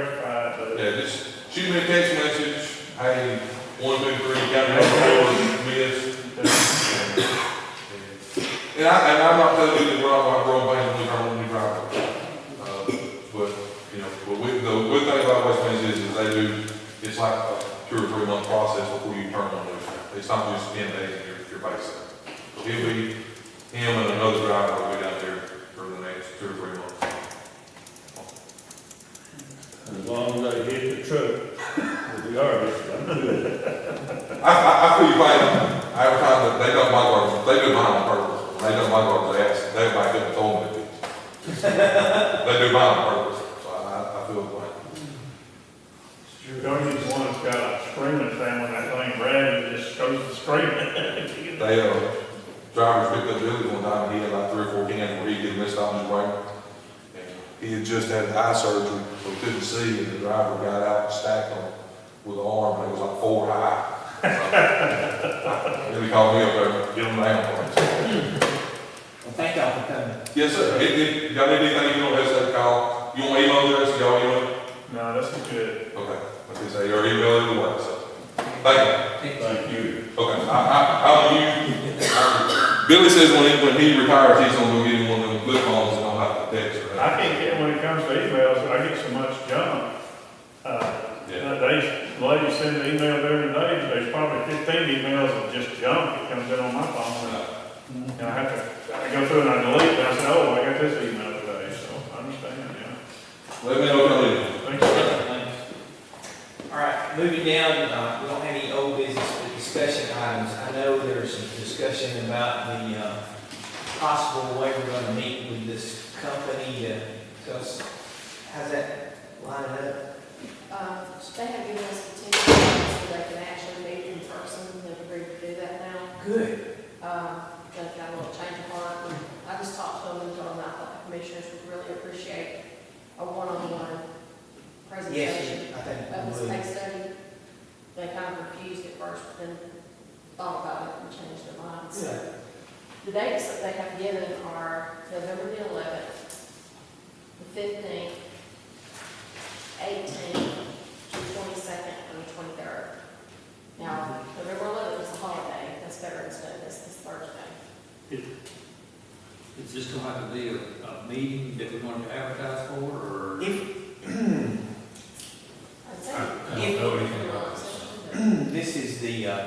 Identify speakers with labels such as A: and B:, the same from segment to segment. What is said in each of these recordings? A: rectified, but
B: Yeah, just shoot me a text message, hey, one, two, three, got me on board, miss. And I, and I'm not telling you that we're all, we're all banging with our own new driver. Uh, But, you know, but with, the good thing about West Plains is, is they do, it's like a two or three month process before you turn on it. It's not just ten days and you're, you're based. He'll be, him and another driver will be down there for the next two or three months.
A: as long as they hit the truck, with the garbage, I'm good.
B: I, I, I feel you fight. I every time that they done my garbage, they do mine on purpose. When they done my garbage, they ask, they might get told me. They do mine on purpose, so I, I feel the way.
A: Sure, don't use one that's got a screaming thing on that thing, Brad, it just goes to screaming.
B: They, uh, drivers picked up Billy one time, he had like three or four cans where he could miss out on his brake. And He had just had eye surgery, so he couldn't see, and the driver got out and stacked him with an arm, and it was like four high. Then he called me up there, get him down.
C: Well, thank y'all for coming.
B: Yes, sir. If, if y'all need anything, you don't hesitate to call. You want email address, y'all email?
A: No, that's not good.
B: Okay. Like I say, your email is the way, so. Thank
A: Thank you.
B: you. Okay, I, I, I'll use, Billy says when he, when he retires, he's gonna go get him one of them flip phones and don't have to text, right?
A: I can't get, when it comes to emails, I get so much junk. Uh,
B: Yeah.
A: They, ladies send an email every day, there's probably fifteen emails of just junk that comes in on my phone. And I have to, I go through and I delete, and I say, oh, I got this email today, so I understand, yeah.
B: Let me know if y'all need.
A: Thanks, sir.
C: All right, moving down, uh, we don't have any old business but discussion items. I know there's some discussion about the, uh, possible way we're gonna meet with this company to, so, it's- how's that lining up?
D: Um, they have given us the ten minutes so they can actually meet in person, they've agreed to do that now.
C: Good.
D: Um, they've got a little change of heart, and I just talked to them and told them I thought the commissioners would really appreciate a one-on-one presentation
C: Yes, I think
D: of
C: we
D: this
C: would.
D: case study. They kind of refused at first, but then thought about it and changed their minds, so.
C: Good.
D: The dates that they have given are November the eleventh, the fifteenth, eighteenth, the twenty-second, and the twenty-third. Now, November eleventh is a holiday, that's Veterans Day, that's this Thursday.
E: Is this gonna have to be a, a meeting that we want to advertise for, or?
C: If,
D: I'd say-
C: if-
D: No, it's not.
C: this is the, uh,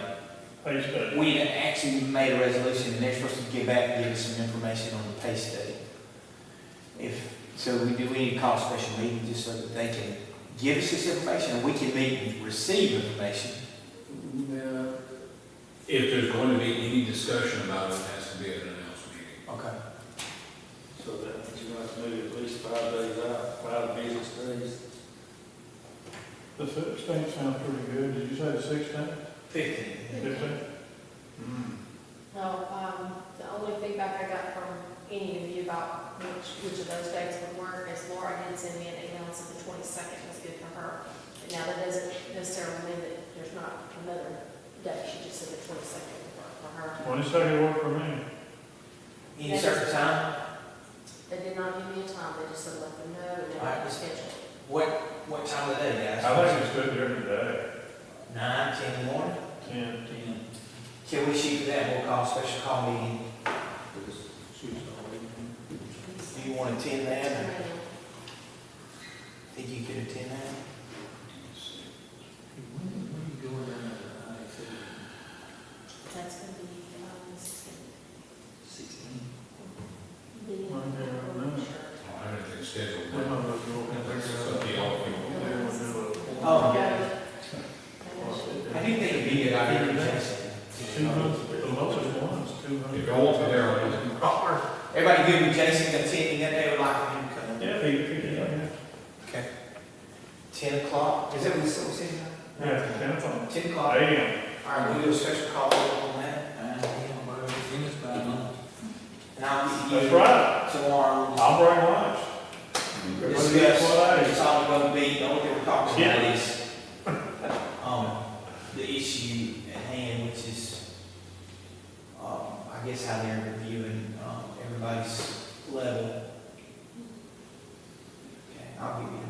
A: Thanks, Dave.
C: We had actually made a resolution, and they're supposed to give back, give us some information on the pay study. If, so we do, we need to call a special meeting just so that they can give us this information, and we can meet and receive information.
F: If there's going to be any discussion about it, it has to be at an announced meeting.
C: Okay.
G: So that means you have to move at least five days out, five business days.
A: The sixteenth sounds pretty good, did you say the sixteenth?
C: Fifteen.
A: Fifteenth? Hmm.
D: No, um, the only feedback I got from any of you about which, which of those dates would work is Laura did send me an email and said the twenty-second was good for her. But now that doesn't necessarily mean that there's not another day, she just said the twenty-second would work for her.
A: Twenty-second work for me.
C: Any certain time?
D: They did not give me a time, they just said let them know and then
C: Alright.
D: I was scheduled.
C: What, what time of the day,
A: I
C: guys?
A: think it's good here today,
C: Nine, ten in the morning?
A: ten.
C: Can we shoot for that, we'll call a special call meeting, do you want to attend that, or think you could attend that?
E: When, when you going down to I said
D: That's gonna be, um, this is
E: sixteen?
D: gonna be.
A: One day, I don't know.
F: I don't think it's scheduled,
A: Then
F: but
A: I'll just go.
F: it's up to y'all.
A: Yeah, we'll do it.
C: Oh,
D: yeah.
C: I do think it'd be a good idea,
A: Two
C: Jason.
A: months, the lowest one's two hundred.
F: If y'all want to be there, I'll just-
C: Everybody good with Jason attending that day, would like uh, him to come?
A: Yeah, he, he, yeah,
C: Okay. Ten o'clock, is that what we said, we said?
A: yeah, ten o'clock.
C: Ten o'clock, all
A: Damn,
C: right, we'll do a special call on that,
E: Uh, yeah, well, it's by now.
C: and I'll give
A: that's
C: you
A: right,
C: tomorrow.
A: I'll bring lunch. Mm-hmm.
C: Discuss,
A: What
C: it's
A: days?
C: all gonna be, the only thing we're talking about is, um, the issue at hand, which is, um, I guess how they're reviewing, um, everybody's level. Okay, I'll give you